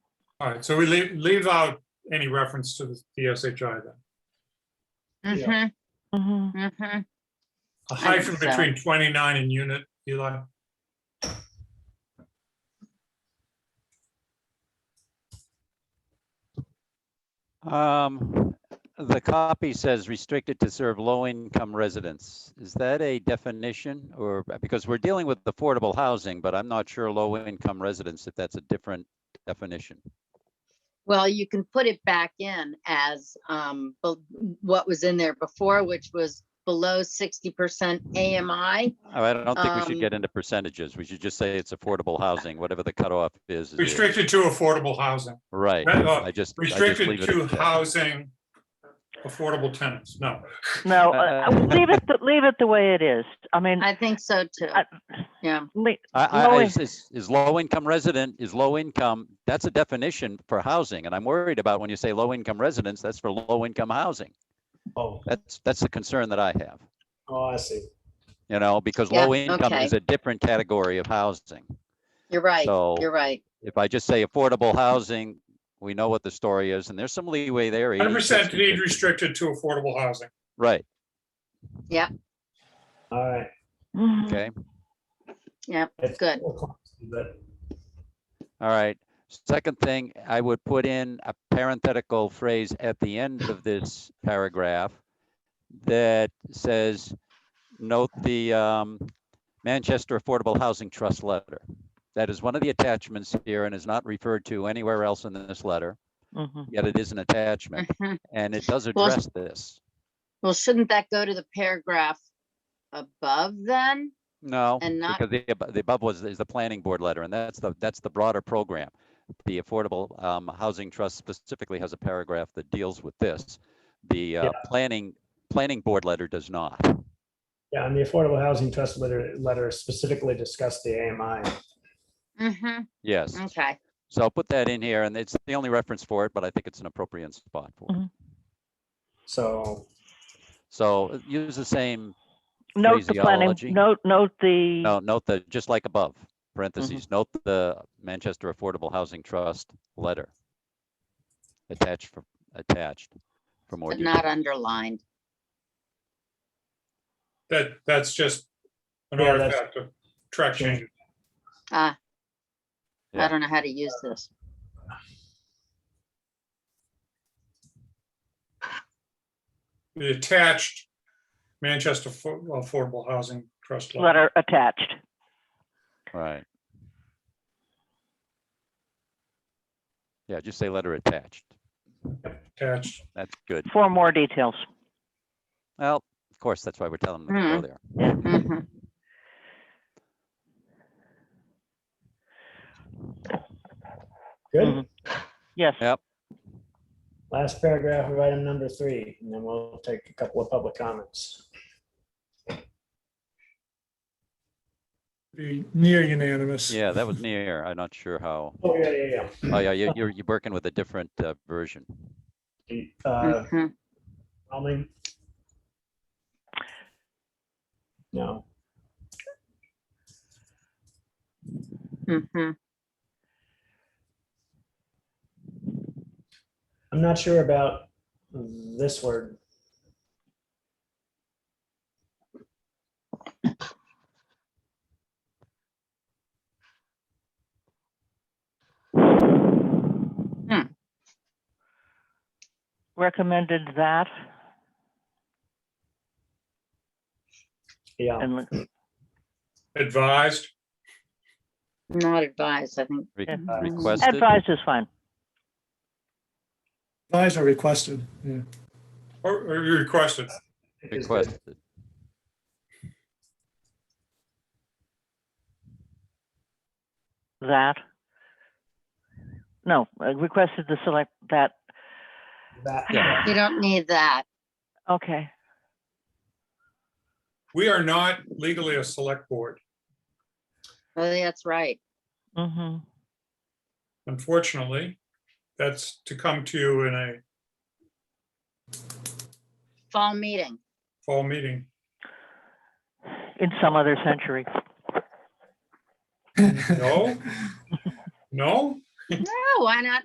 All right, so we leave, leave out any reference to the- the SHI then. Mm-hmm, Mhm. mm-hmm. A think hyphen so. between 29 and unit, Eli. Um, the copy says restricted to serve low-income residents. Is that a definition or, because we're dealing with affordable housing, but I'm not sure low-income residents, if that's a different definition. Well, you can put it back in as, um, bel- what was in there before, which was below sixty percent AMI. Oh, I don't think we Um, should get into percentages. We should just say it's affordable housing, whatever the cutoff is. is it. Restricted to affordable housing, Right, Right, uh, I just. I just restricted leave it to at that. housing, affordable tenants, no. No, uh, Uh, leave it, th- leave it the way it is. I mean, I think so too. I- Yeah, le- I, I, low is, is- is low-income resident, is low-income, that's a definition for housing, and I'm worried about when you say low-income residents, that's for low-income housing. Oh, That's, that's the concern that I have, oh, I see. you know, because Yeah, low-income okay. is a different category of housing. you're right. So- You're right. If I just say affordable housing, we know what the story is, and there's some leeway there. 80, 100% 60, deed 50. restricted to affordable housing. Right, All right. Mhm. okay, It's- Good. But all right. Second thing, I would put in a parenthetical phrase at the end of this paragraph that says, note the um, Manchester Affordable Housing Trust letter. That is one of the attachments here and is not referred to anywhere else in this letter, Mhm. yet it is an attachment, Mhm. and it does Well- address this. Well, shouldn't that go to the paragraph above then? No, And not- because the, abo- the above was, is the planning board letter, and that's the, that's the broader program. The Affordable um, Housing Trust specifically has a paragraph that deals with this. The uh, planning, planning board letter does not. yeah, and the Affordable Housing Trust letter, letter specifically discussed the AMI. Mm-hmm, Yes, okay. so I'll put that in here, and it's the only reference for it, but I think it's an appropriate spot for it. So, So uh, use the same, Note the planning, Phraseology. note, note the, no, note the, just like above, parentheses, note the Manchester Affordable Housing Trust letter. Attached, for attached for more But detail. not underlined. That, that's just an Yeah, that's- artifact of track changes. Ah. I Yeah. don't know how to use this. The attached Manchester Affo- Affordable Housing Trust. law. letter attached. Right. Yeah, just say letter attached. Attached. That's good. For more details. Well, of course, that's why we're telling them to go Mhm. there. Mhm. good. Mhm. Yes. Last paragraph of item number three, and then we'll take a couple of public comments. be near unanimous. Yeah, that was near. I'm not sure how. Oh, yeah, yeah, Oh, yeah, you- you're, you're working with a different uh, version. yeah. Uh, Mhm. Almond? No, Mhm. I'm not sure about this word. Recommended that Yeah, and l- Advised. Not advised, I think. Re- Yeah. Mhm. Requested. advised is fine. Eyes are requested, yeah. Or or you requested, it's good. Requested. that. No, I requested to select that. That- You don't need that. Okay. we are not legally a select board, Oh, that's right. Mm-hmm. unfortunately. That's to come to you in a Fall meeting. fall meeting. In some other century. No? No? No, why not?